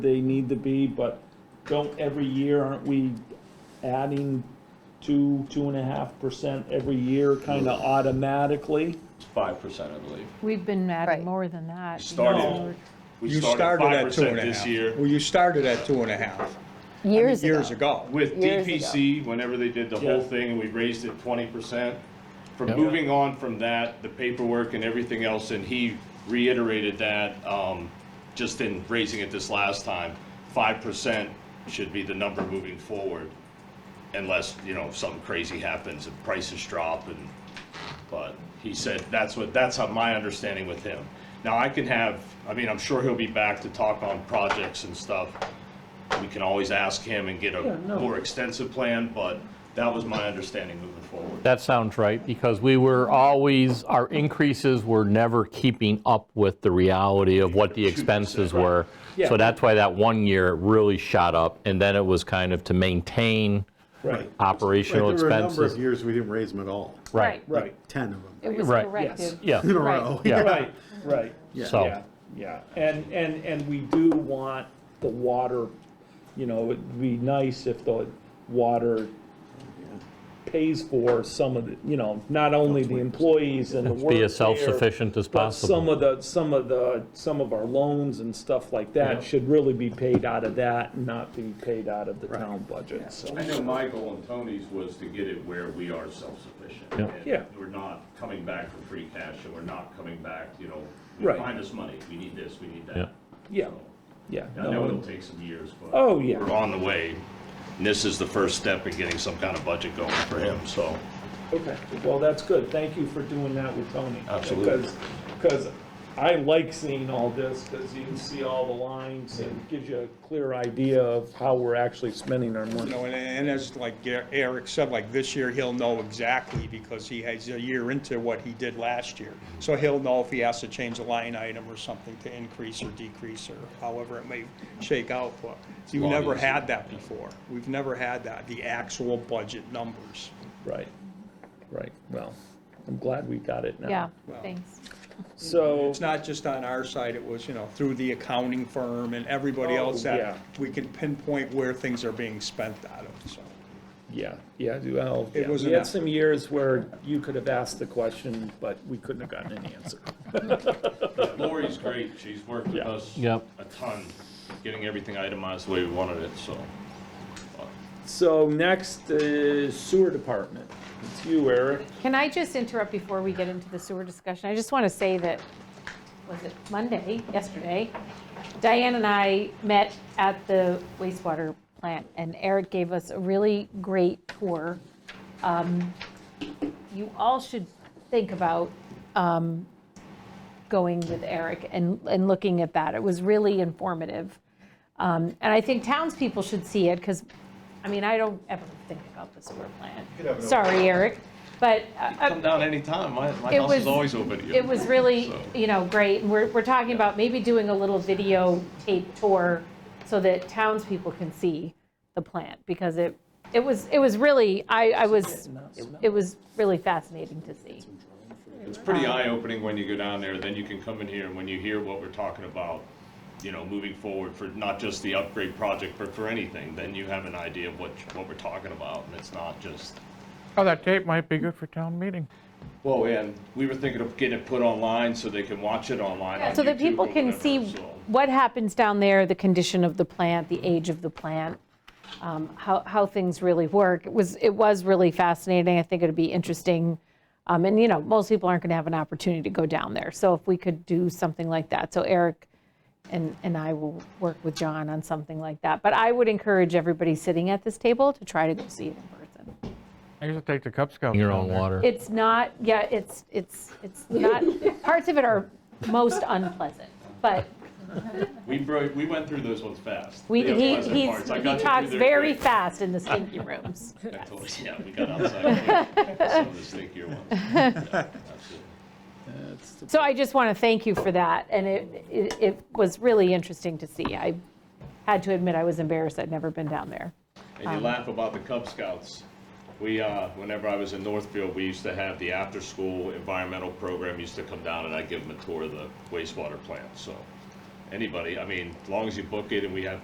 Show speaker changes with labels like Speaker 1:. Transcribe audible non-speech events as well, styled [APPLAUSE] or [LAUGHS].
Speaker 1: they need to be, but don't every year, aren't we adding two, two and a half percent every year kind of automatically?
Speaker 2: Five percent, I believe.
Speaker 3: We've been
Speaker 4: Right.
Speaker 3: adding more than that.
Speaker 2: We started-
Speaker 3: No.
Speaker 2: We
Speaker 5: You started at two and
Speaker 2: 5%
Speaker 5: a half.
Speaker 2: This year
Speaker 5: Well, you started at two and a half. I mean,
Speaker 4: years ago.
Speaker 5: Years ago.
Speaker 2: with
Speaker 4: Years
Speaker 2: DPC, whenever they did the
Speaker 1: Yeah.
Speaker 2: whole thing and we raised it twenty percent. From moving on from that, the paperwork and everything else, and he reiterated that, um, just in raising it this last time, five percent should be the number moving forward. Unless, you know, something crazy happens and prices drop and, but he said that's what, that's how my understanding with him. Now I can have, I mean, I'm sure he'll be back to talk on projects and stuff. We can always ask him and get a more extensive plan, but that was my understanding moving forward.
Speaker 6: That sounds right, because we were always, our increases were never keeping up with the reality of what the expenses were. So that's why that one year it really shot up, and then it was kind of to maintain
Speaker 1: Right.
Speaker 6: operational
Speaker 7: Right, There were a number of
Speaker 6: expenses.
Speaker 7: years we didn't raise them at all,
Speaker 6: Right,
Speaker 1: Right,
Speaker 7: 10 of them
Speaker 3: It was
Speaker 6: Right,
Speaker 3: corrected.
Speaker 6: yeah,
Speaker 7: in a row. [LAUGHS]
Speaker 6: yeah.
Speaker 1: right, right.
Speaker 6: So,
Speaker 1: Yeah, yeah, and, and, and we do want the water, you know, it'd be nice if the water pays for some of the, you know, not only the employees and the work
Speaker 6: be
Speaker 1: there,
Speaker 6: as self-sufficient as
Speaker 1: But some
Speaker 6: possible.
Speaker 1: of the, some of the, some of our loans and stuff like
Speaker 6: Yeah.
Speaker 1: that should really be paid out of that, and not be paid out of the town budget, so.
Speaker 2: I know my goal and Tony's was to get it where we are self-sufficient.
Speaker 6: Yeah.
Speaker 2: and
Speaker 1: Yeah.
Speaker 2: We're not coming back for free cash and we're not coming back, you know,
Speaker 1: Right.
Speaker 2: find us money, we need this, we need
Speaker 6: Yeah.
Speaker 2: that.
Speaker 1: Yeah,
Speaker 2: So-
Speaker 1: yeah.
Speaker 2: I know it'll take some years, but.
Speaker 1: Oh, yeah.
Speaker 2: We're on the way. And this is the first step in getting some kind of budget going for him, so.
Speaker 1: Okay, well, that's good. Thank you for doing that with Tony.
Speaker 2: Absolutely.
Speaker 1: Because I like seeing all this, because you can see all the lines and gives you a clear idea of how we're actually spending our
Speaker 5: You
Speaker 1: money.
Speaker 5: know, and, and as like Eric said, like this year, he'll know exactly because he has a year into what he did last year. So he'll know if he has to change a line item or something to increase or decrease or however it may shake out. But you've
Speaker 2: Long
Speaker 5: never
Speaker 2: as-
Speaker 5: had that before. We've never had that, the actual budget numbers.
Speaker 1: Right, right. Well, I'm glad we got it now.
Speaker 3: Yeah, thanks.
Speaker 1: So,
Speaker 5: It's not just on our side, it was, you know, through the accounting firm and everybody
Speaker 1: Oh,
Speaker 5: else
Speaker 1: yeah.
Speaker 5: that we can pinpoint where things are being spent out of, so.
Speaker 1: yeah, yeah, well,
Speaker 5: It
Speaker 1: yeah.
Speaker 5: was
Speaker 1: we had
Speaker 5: enough.
Speaker 1: some years where you could have asked the question, but we couldn't have gotten an answer.
Speaker 2: Lori's great. She's worked with
Speaker 1: Yeah.
Speaker 2: us
Speaker 6: Yep.
Speaker 2: a ton, getting everything itemized the way we wanted it, so.
Speaker 1: So next is sewer department. It's you, Eric.
Speaker 3: Can I just interrupt before we get into the sewer discussion? I just want to say that, was it Monday, yesterday? Diane and I met at the wastewater plant, and Eric gave us a really great tour. Um, You all should think about um, going with Eric and, and looking at that. It was really informative. Um, And I think townspeople should see it, because, I mean, I don't ever think about the sewer plant. Sorry, Eric, but uh,
Speaker 2: Come down anytime. My, my
Speaker 3: It
Speaker 2: house is
Speaker 3: was-
Speaker 2: always open to you.
Speaker 3: it was really,
Speaker 2: So-
Speaker 3: you know, great. And We're, we're talking about maybe doing a little videotape tour so that townspeople can see the plant, because it, it was, it was really, I, I was, it was really fascinating to see.
Speaker 2: It's pretty eye-opening when you go down there, then you can come in here and when you hear what we're talking about, you know, moving forward for not just the upgrade project, but for anything, then you have an idea of what, what we're talking about and it's not just
Speaker 8: Oh, that tape might be good for town meeting.
Speaker 2: Well, and we were thinking of getting it put online so they can watch it online on
Speaker 3: So that
Speaker 2: YouTube
Speaker 3: people
Speaker 2: or
Speaker 3: can
Speaker 2: whatever,
Speaker 3: see
Speaker 2: so.
Speaker 3: what happens down there, the condition of the plant, the age of the plant, um, how, how things really work. It was, it was really fascinating. I think it'd be interesting. Um, And, you know, most people aren't going to have an opportunity to go down there. So if we could do something like that. So Eric and, and I will work with John on something like that. But I would encourage everybody sitting at this table to try to go see it in person.
Speaker 8: I used to take the Cub Scouts.
Speaker 6: Your
Speaker 8: down
Speaker 6: own
Speaker 8: there.
Speaker 6: water.
Speaker 3: It's not, yeah, it's, it's, it's not, parts of it are most unpleasant, but
Speaker 2: We broke, we went through those ones fast.
Speaker 3: We,
Speaker 2: The
Speaker 3: he,
Speaker 2: unpleasant
Speaker 3: he's,
Speaker 2: parts. I
Speaker 3: he
Speaker 2: got you through
Speaker 3: talks
Speaker 2: there
Speaker 3: very
Speaker 2: quick.
Speaker 3: fast in the stinky rooms.
Speaker 2: I told you, Yeah, we got outside quick. some of the stinkier ones. Yeah, absolutely.
Speaker 3: So I just want to thank you for that, and it, it, it was really interesting to see. I had to admit, I was embarrassed, I'd never been down there.
Speaker 2: And you laugh about the Cub Scouts. We, uh, whenever I was in Northfield, we used to have the after-school environmental program used to come down and I'd give them a tour of the wastewater plant, so. anybody. I mean, as long as you book it and we have